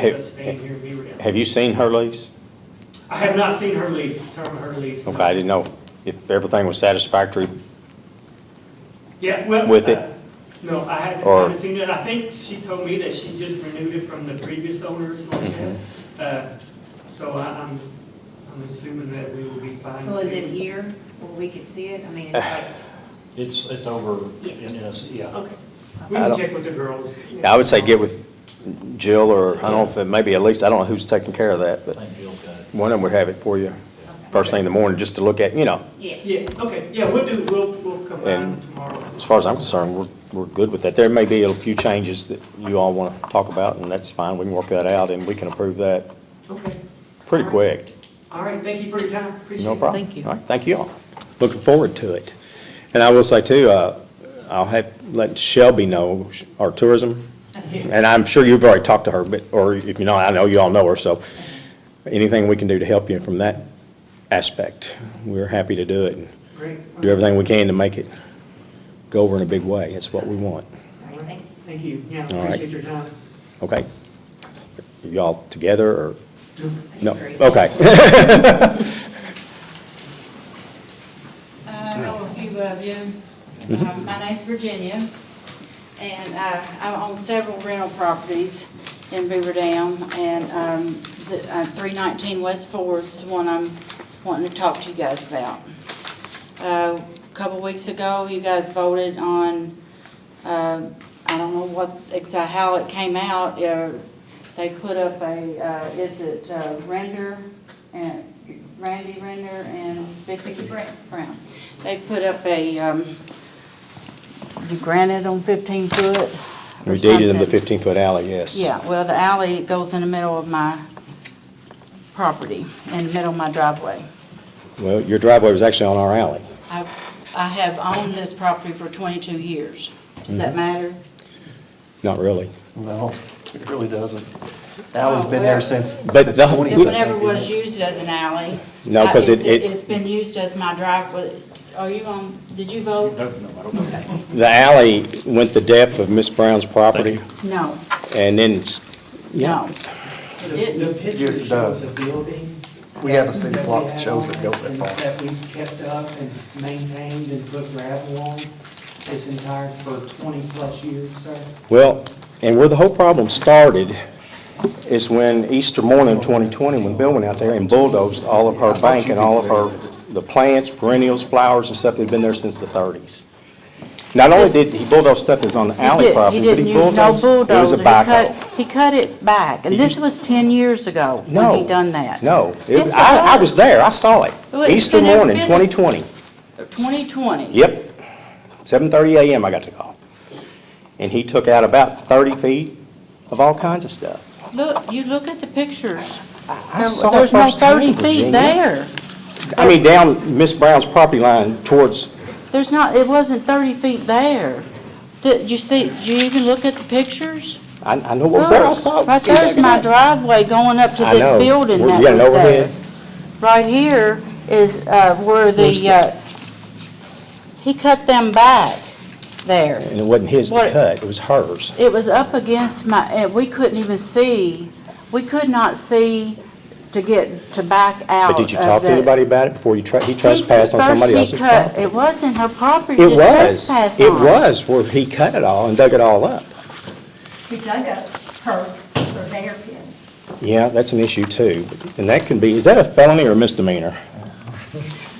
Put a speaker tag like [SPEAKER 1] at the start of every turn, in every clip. [SPEAKER 1] Have-
[SPEAKER 2] Stand here and be real.
[SPEAKER 1] Have you seen her lease?
[SPEAKER 2] I have not seen her lease, term her lease. no.
[SPEAKER 1] Okay, I didn't know if everything was satisfactory.
[SPEAKER 2] Yeah, well.
[SPEAKER 1] with it?
[SPEAKER 2] uh, No, I haven't, I
[SPEAKER 1] Or-
[SPEAKER 2] haven't seen it. I think she told me that she just renewed it from the previous owners like
[SPEAKER 1] Mm-hmm.
[SPEAKER 2] that. Uh, So I- I'm, I'm assuming that we will be fine.
[SPEAKER 3] So is
[SPEAKER 2] with
[SPEAKER 3] it here where we could see it? I mean, it's like,
[SPEAKER 4] It's, it's over in, in, a- yeah.
[SPEAKER 2] Okay. We
[SPEAKER 1] I
[SPEAKER 2] can
[SPEAKER 1] don't-
[SPEAKER 2] check with the girls.
[SPEAKER 1] I would say get with Jill or, I don't know if it may be at least, I don't know who's taking care of that,
[SPEAKER 4] I
[SPEAKER 1] but
[SPEAKER 4] think Jill got it.
[SPEAKER 1] one of them would have it for you first thing in the morning, just to look at, you know.
[SPEAKER 3] yeah,
[SPEAKER 2] Yeah, okay, yeah, we'll do, we'll, we'll come
[SPEAKER 1] And-
[SPEAKER 2] around tomorrow.
[SPEAKER 1] As far as I'm concerned, we're, we're good with that. There may be a few changes that you all want to talk about, and that's fine. We can work that out, and we can approve that
[SPEAKER 2] Okay,
[SPEAKER 1] pretty quick.
[SPEAKER 2] all right, thank you for your time, appreciate it.
[SPEAKER 1] No problem.
[SPEAKER 3] Thank you.
[SPEAKER 1] All right, thank you all. Looking forward to it. And I will say too, uh, I'll have, let Shelby know, our tourism, and I'm sure you've already talked to her, but, or if you know, I know you all know her, so anything we can do to help you from that aspect, we're happy to do it. and
[SPEAKER 2] Great.
[SPEAKER 1] Do everything we can to make it go over in a big way. It's what we want.
[SPEAKER 3] all right, thank you.
[SPEAKER 2] Thank you, yeah,
[SPEAKER 1] All right.
[SPEAKER 2] appreciate your time.
[SPEAKER 1] Okay? Are Y'all together or? No,
[SPEAKER 3] Agree.
[SPEAKER 1] okay.
[SPEAKER 5] Uh, I know a few of you. Um, My name's Virginia, and uh, I own several rental properties in Beaver Dam, and um, the- uh, 319 West Ford's the one I'm wanting to talk to you guys about. A Uh, Couple weeks ago, you guys voted on, uh, I don't know what, exa- how it came out. uh, They put up a, uh, is it uh, Render and Randy Render and Vicky Brown? They put up a, um, you granted them 15 foot or
[SPEAKER 1] We deeded them the
[SPEAKER 5] something.
[SPEAKER 1] 15-foot alley, yes.
[SPEAKER 5] Yeah, well, the alley goes in the middle of my property, in the middle of my driveway.
[SPEAKER 1] Well, your driveway was actually on our alley.
[SPEAKER 5] I, I have owned this property for 22 years. Does
[SPEAKER 1] Mm-hmm.
[SPEAKER 5] that matter?
[SPEAKER 1] Not really.
[SPEAKER 6] No, it really doesn't. Alley's been there since.
[SPEAKER 1] But the-
[SPEAKER 5] It
[SPEAKER 6] 20s, I
[SPEAKER 5] never
[SPEAKER 6] think,
[SPEAKER 5] was
[SPEAKER 6] yeah.
[SPEAKER 5] used as an alley.
[SPEAKER 1] No, 'cause
[SPEAKER 5] Uh,
[SPEAKER 1] it-
[SPEAKER 5] it's-
[SPEAKER 1] it-
[SPEAKER 5] It's been used as my driveway. Are you on, did you vote?
[SPEAKER 4] No, no, I don't know.
[SPEAKER 1] The alley went the depth of Miss Brown's property,
[SPEAKER 5] No,
[SPEAKER 1] and then, it's-
[SPEAKER 5] no. It
[SPEAKER 2] The the
[SPEAKER 5] didn't.
[SPEAKER 6] Yes,
[SPEAKER 2] picture
[SPEAKER 6] it
[SPEAKER 2] shows
[SPEAKER 6] does.
[SPEAKER 2] the building.
[SPEAKER 6] We have a city
[SPEAKER 2] that we
[SPEAKER 6] block that
[SPEAKER 2] have
[SPEAKER 6] shows
[SPEAKER 2] on
[SPEAKER 6] it goes that far.
[SPEAKER 2] That we've kept up and maintained and put gravel on this entire, for 20-plus years, sir.
[SPEAKER 1] well, and where the whole problem started is when Easter morning 2020, when Bill went out there and bulldozed all of her bank and all of her, the plants, perennials, flowers and stuff that had been there since the 30s. Not only did he bulldoze stuff that was on the alley property, but he bulldozed, it was a backhoe.
[SPEAKER 5] He cut it back, and this was 10 years ago
[SPEAKER 1] No.
[SPEAKER 5] when he done that.
[SPEAKER 1] No, It-
[SPEAKER 5] Yes, it
[SPEAKER 1] I, I was
[SPEAKER 5] was.
[SPEAKER 1] there, I saw it,
[SPEAKER 5] Well, it's
[SPEAKER 1] Easter
[SPEAKER 5] been there,
[SPEAKER 1] morning
[SPEAKER 5] been-
[SPEAKER 1] 2020.
[SPEAKER 5] 2020.
[SPEAKER 1] Yep, 7:30 a.m. I got the call. And he took out about 30 feet of all kinds of stuff.
[SPEAKER 5] Look, you look at the pictures.
[SPEAKER 1] I
[SPEAKER 5] There-
[SPEAKER 1] saw it
[SPEAKER 5] There's no
[SPEAKER 1] firsthand,
[SPEAKER 5] 30 feet
[SPEAKER 1] Virginia.
[SPEAKER 5] there.
[SPEAKER 1] I mean, down Miss Brown's property line towards,
[SPEAKER 5] There's not, it wasn't 30 feet there. Did you see, did you even look at the pictures?
[SPEAKER 1] I, I know what was there, I saw it.
[SPEAKER 5] Oh, Right
[SPEAKER 1] came back
[SPEAKER 5] there's my
[SPEAKER 1] up.
[SPEAKER 5] driveway going up to
[SPEAKER 1] I know.
[SPEAKER 5] this building
[SPEAKER 1] We're-
[SPEAKER 5] that
[SPEAKER 1] we got an
[SPEAKER 5] was there.
[SPEAKER 1] overhead.
[SPEAKER 5] Right here is uh, where
[SPEAKER 1] Where's
[SPEAKER 5] the,
[SPEAKER 1] that?
[SPEAKER 5] uh, he cut them back there.
[SPEAKER 1] And it wasn't his to
[SPEAKER 5] What-
[SPEAKER 1] cut, it was hers.
[SPEAKER 5] It was up against my, and we couldn't even see, we could not see to get, to back out
[SPEAKER 1] But did you
[SPEAKER 5] of
[SPEAKER 1] talk to
[SPEAKER 5] Oh, uh, the-
[SPEAKER 1] anybody about it before you tra- he
[SPEAKER 5] He-
[SPEAKER 1] trespassed on
[SPEAKER 5] first
[SPEAKER 1] somebody
[SPEAKER 5] he
[SPEAKER 1] else's
[SPEAKER 5] cut-
[SPEAKER 1] property?
[SPEAKER 5] It wasn't her property
[SPEAKER 1] It
[SPEAKER 5] to
[SPEAKER 1] was,
[SPEAKER 5] trespass
[SPEAKER 1] it
[SPEAKER 5] on.
[SPEAKER 1] was where he cut it all and dug it all up.
[SPEAKER 7] He dug up her surveyor pin.
[SPEAKER 1] Yeah, that's an issue too. And that can be, is that a felony or misdemeanor?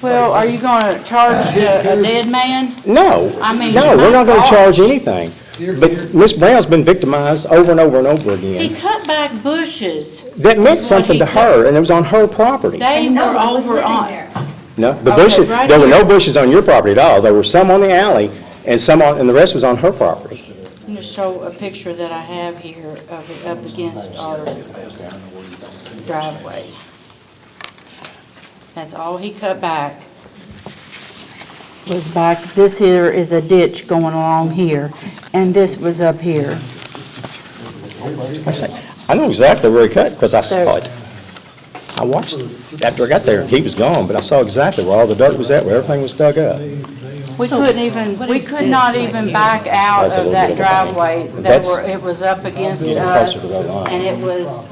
[SPEAKER 5] Well, are you gonna charge
[SPEAKER 1] uh,
[SPEAKER 5] the- a dead man?
[SPEAKER 1] No.
[SPEAKER 5] I mean,
[SPEAKER 1] No, we're not gonna
[SPEAKER 5] my
[SPEAKER 1] charge
[SPEAKER 5] gosh.
[SPEAKER 1] anything. But Miss Brown's been victimized over and over and over
[SPEAKER 5] He
[SPEAKER 1] again.
[SPEAKER 5] cut back bushes.
[SPEAKER 1] That meant
[SPEAKER 5] That's what
[SPEAKER 1] something
[SPEAKER 5] he
[SPEAKER 1] to her,
[SPEAKER 5] did.
[SPEAKER 1] and it was on her property.
[SPEAKER 5] They
[SPEAKER 7] And no
[SPEAKER 5] were
[SPEAKER 7] one was
[SPEAKER 5] over
[SPEAKER 7] living
[SPEAKER 5] on.
[SPEAKER 7] there.
[SPEAKER 1] No, the
[SPEAKER 5] Okay,
[SPEAKER 1] bushes,
[SPEAKER 5] right
[SPEAKER 1] there were no
[SPEAKER 5] here.
[SPEAKER 1] bushes on your property at all. There were some on the alley, and some on, and the rest was on her property.
[SPEAKER 5] I'm gonna show a picture that I have here of it up against our driveway. That's all he cut back. Was back, this here is a ditch going along here, and this was up here.
[SPEAKER 1] I say, I know exactly where he cut, because I saw
[SPEAKER 5] There.
[SPEAKER 1] it. I watched, it after I got there, he was gone, but I saw exactly where all the dirt was at, where everything was dug up.
[SPEAKER 5] We couldn't even, we could not even back out
[SPEAKER 1] That's a
[SPEAKER 5] of
[SPEAKER 1] little
[SPEAKER 5] that
[SPEAKER 1] bit of a-
[SPEAKER 5] driveway. They
[SPEAKER 1] That's-
[SPEAKER 5] were, it was up against
[SPEAKER 1] Getting closer
[SPEAKER 5] us,
[SPEAKER 1] to that line.
[SPEAKER 5] and it was